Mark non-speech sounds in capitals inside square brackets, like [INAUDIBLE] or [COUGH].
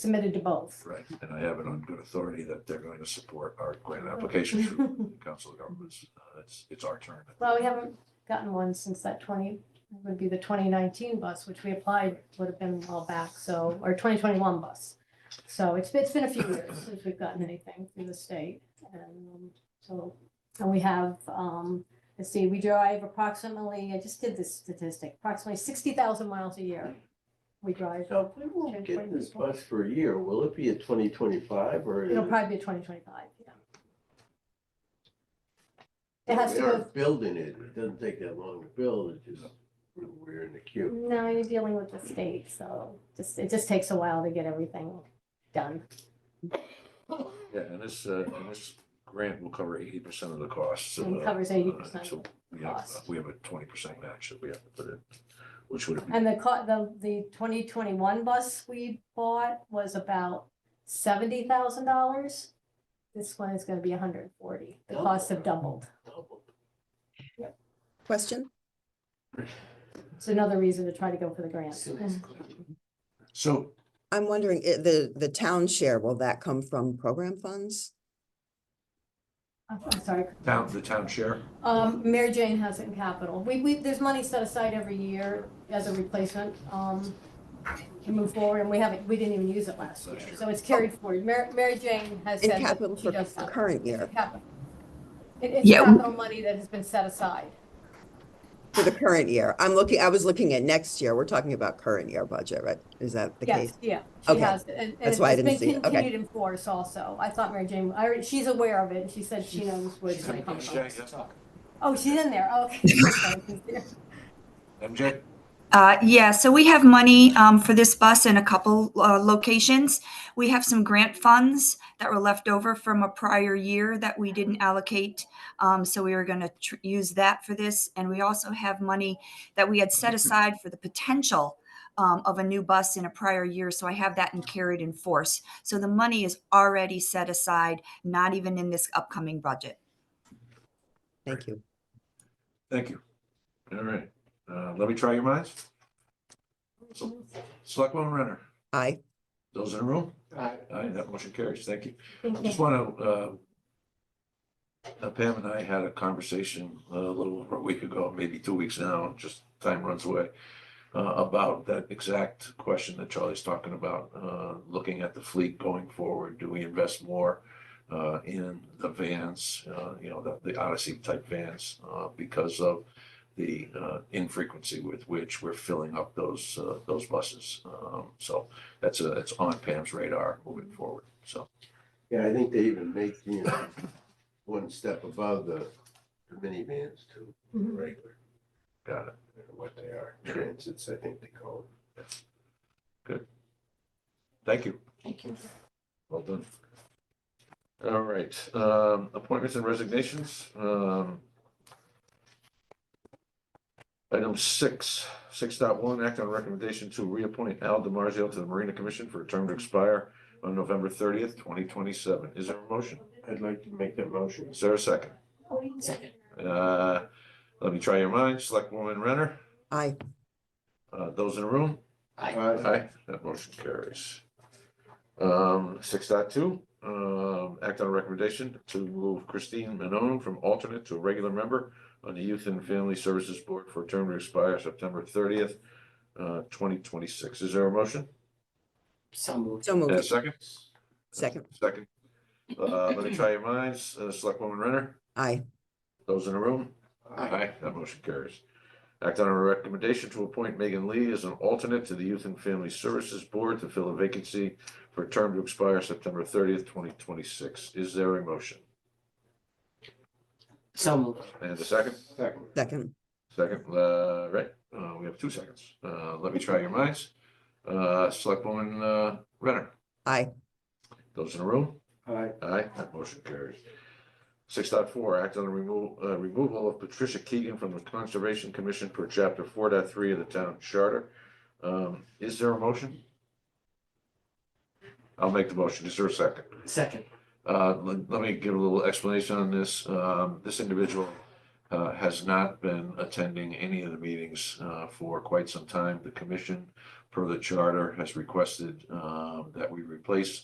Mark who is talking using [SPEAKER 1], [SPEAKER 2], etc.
[SPEAKER 1] submitted to both.
[SPEAKER 2] Right, and I have it on good authority that they're going to support our grant
[SPEAKER 1] [LAUGHS]
[SPEAKER 2] application through the Council of Governments. Uh, It's, it's our turn.
[SPEAKER 1] Well, we haven't gotten one since that twenty, it would be the twenty nineteen bus, which we applied, would have been all back, so, or twenty twenty-one bus. So it's, it's been a few years since we've gotten anything from the state, and, um, so, and we have, um, let's see, we drive approximately, I just did this statistic, approximately sixty thousand miles a year. We drive,
[SPEAKER 3] So if we won't get this bus for a year, will it be a twenty twenty-five or?
[SPEAKER 1] it'll probably be twenty twenty-five, yeah. It has to
[SPEAKER 3] We are
[SPEAKER 1] go,
[SPEAKER 3] Building it, it doesn't take that long to build, it just, we're in the queue.
[SPEAKER 1] No, you're dealing with the state, so just, it just takes a while to get everything done.
[SPEAKER 2] Yeah, and this, uh, and this grant will cover eighty percent of the costs. so,
[SPEAKER 1] It
[SPEAKER 2] uh,
[SPEAKER 1] covers eighty percent.
[SPEAKER 2] so We have, uh,
[SPEAKER 1] cost.
[SPEAKER 2] we have a twenty percent match that we have to put in, which would be,
[SPEAKER 1] And the co- the, the twenty twenty-one bus we bought was about seventy thousand dollars. This one is gonna be hundred and forty. The costs have doubled.
[SPEAKER 4] Question?
[SPEAKER 1] It's another reason to try to go for the grant.
[SPEAKER 2] so
[SPEAKER 4] I'm wondering, i- the, the town share, will that come from program funds?
[SPEAKER 1] I'm I'm sorry.
[SPEAKER 2] town, the town share,
[SPEAKER 1] Um, Mary Jane has it in capital. We, we, there's money set aside every year as a replacement, um, to move forward, and we haven't, we didn't even use it last year,
[SPEAKER 2] Last year.
[SPEAKER 1] so it's carried forward. Mary, Mary Jane has
[SPEAKER 4] In
[SPEAKER 1] said that
[SPEAKER 4] capital
[SPEAKER 1] she
[SPEAKER 4] for
[SPEAKER 1] does
[SPEAKER 4] the
[SPEAKER 1] that.
[SPEAKER 4] current year,
[SPEAKER 1] Capital. It, it's
[SPEAKER 5] Yeah.
[SPEAKER 1] capital money that has been set aside.
[SPEAKER 4] for the current year. I'm looking, I was looking at next year. We're talking about current year budget, right? Is that the
[SPEAKER 1] Yes,
[SPEAKER 4] case?
[SPEAKER 1] yeah, she
[SPEAKER 4] Okay.
[SPEAKER 1] has, it, and, and
[SPEAKER 4] That's
[SPEAKER 1] it's
[SPEAKER 4] why I didn't
[SPEAKER 1] been
[SPEAKER 4] see it. Okay.
[SPEAKER 1] continued in force also. I thought Mary Jane, I, already- she's aware of it, and she said she knows where it's
[SPEAKER 2] She's
[SPEAKER 1] gonna
[SPEAKER 2] in
[SPEAKER 1] come
[SPEAKER 2] the
[SPEAKER 1] from.
[SPEAKER 2] exchange,
[SPEAKER 1] Oh, she's in there, okay. She's there.
[SPEAKER 2] MJ?
[SPEAKER 5] Uh, yeah, so we have money um, for this bus in a couple uh, locations. We have some grant funds that were left over from a prior year that we didn't allocate. Um, so we were going to tr- use that for this. And we also have money that we had set aside for the potential um, of a new bus in a prior year. So I have that in carried in force. So the money is already set aside, not even in this upcoming budget.
[SPEAKER 4] Thank you.
[SPEAKER 2] Thank you. All right, uh, let me try your minds. Selectwoman Renner,
[SPEAKER 4] Aye.
[SPEAKER 2] those in the room?
[SPEAKER 3] Aye.
[SPEAKER 2] Aye, that motion carries. Thank you. I
[SPEAKER 1] Thank you.
[SPEAKER 2] just want to, uh, Pam and I had a conversation uh, a little over a week ago, maybe two weeks now, just time runs away, uh, about that exact question that Charlie's talking about, uh, looking at the fleet going forward. Do we invest more uh, in the vans, uh, you know, the- the Odyssey type vans, uh, because of the uh, infrequency with which we're filling up those, uh, those buses? Um, So that's, a- that's on Pam's radar moving forward, so.
[SPEAKER 3] Yeah, I think they even make, you know, one step above the the minivans to
[SPEAKER 1] Mhm.
[SPEAKER 3] regular,
[SPEAKER 2] Got it.
[SPEAKER 3] I don't know what they are, transits, I think they call
[SPEAKER 2] Thank you.
[SPEAKER 1] Thank you.
[SPEAKER 2] Well done. All right, um, appointments and resignations, um. Item six, six dot one, act on recommendation to reappoint Al DiMarzio to the Marina Commission for a term to expire on November thirtieth, twenty twenty-seven. Is there a motion?
[SPEAKER 3] it. I'd like to make that motion.
[SPEAKER 2] Is there a second? Uh, let me try your minds. Selectwoman Renner,
[SPEAKER 4] Aye.
[SPEAKER 2] uh, those in the room?
[SPEAKER 3] Uh,
[SPEAKER 2] Aye, that motion carries. Um, six dot two, um, act on a recommendation to move Christine Manon from alternate to a regular member on the Youth and Family Services Board for a term to expire September thirtieth, uh, twenty twenty-six. Is there a motion?
[SPEAKER 4] So
[SPEAKER 2] And a
[SPEAKER 4] moved.
[SPEAKER 2] second?
[SPEAKER 4] Second.
[SPEAKER 2] Second. Uh, let me try your minds. Uh, Selectwoman Renner,
[SPEAKER 4] Aye.
[SPEAKER 2] those in the room? Aye, that motion carries. Act on a recommendation to appoint Megan Lee as an alternate to the Youth and Family Services Board to fill a vacancy for a term to expire September thirtieth, twenty twenty-six. Is there a motion?
[SPEAKER 6] So moved.
[SPEAKER 2] And a second?
[SPEAKER 3] Second.
[SPEAKER 4] Second.
[SPEAKER 2] Second, uh, right, uh, we have two seconds. Uh, let me try your minds. Uh, Selectwoman, uh, Renner,
[SPEAKER 4] Aye.
[SPEAKER 2] those in the room?
[SPEAKER 3] Aye.
[SPEAKER 2] Aye, that motion carries. Six point four. act on the removal, uh, removal of Patricia Keegan from the Conservation Commission per chapter four point three of the town charter. Um, is there a motion? I'll make the motion. Is there a second?
[SPEAKER 6] Second.
[SPEAKER 2] Uh, let, let me give a little explanation on this. Um, this individual uh, has not been attending any of the meetings uh, for quite some time. The commission per the charter, has requested um, that we replace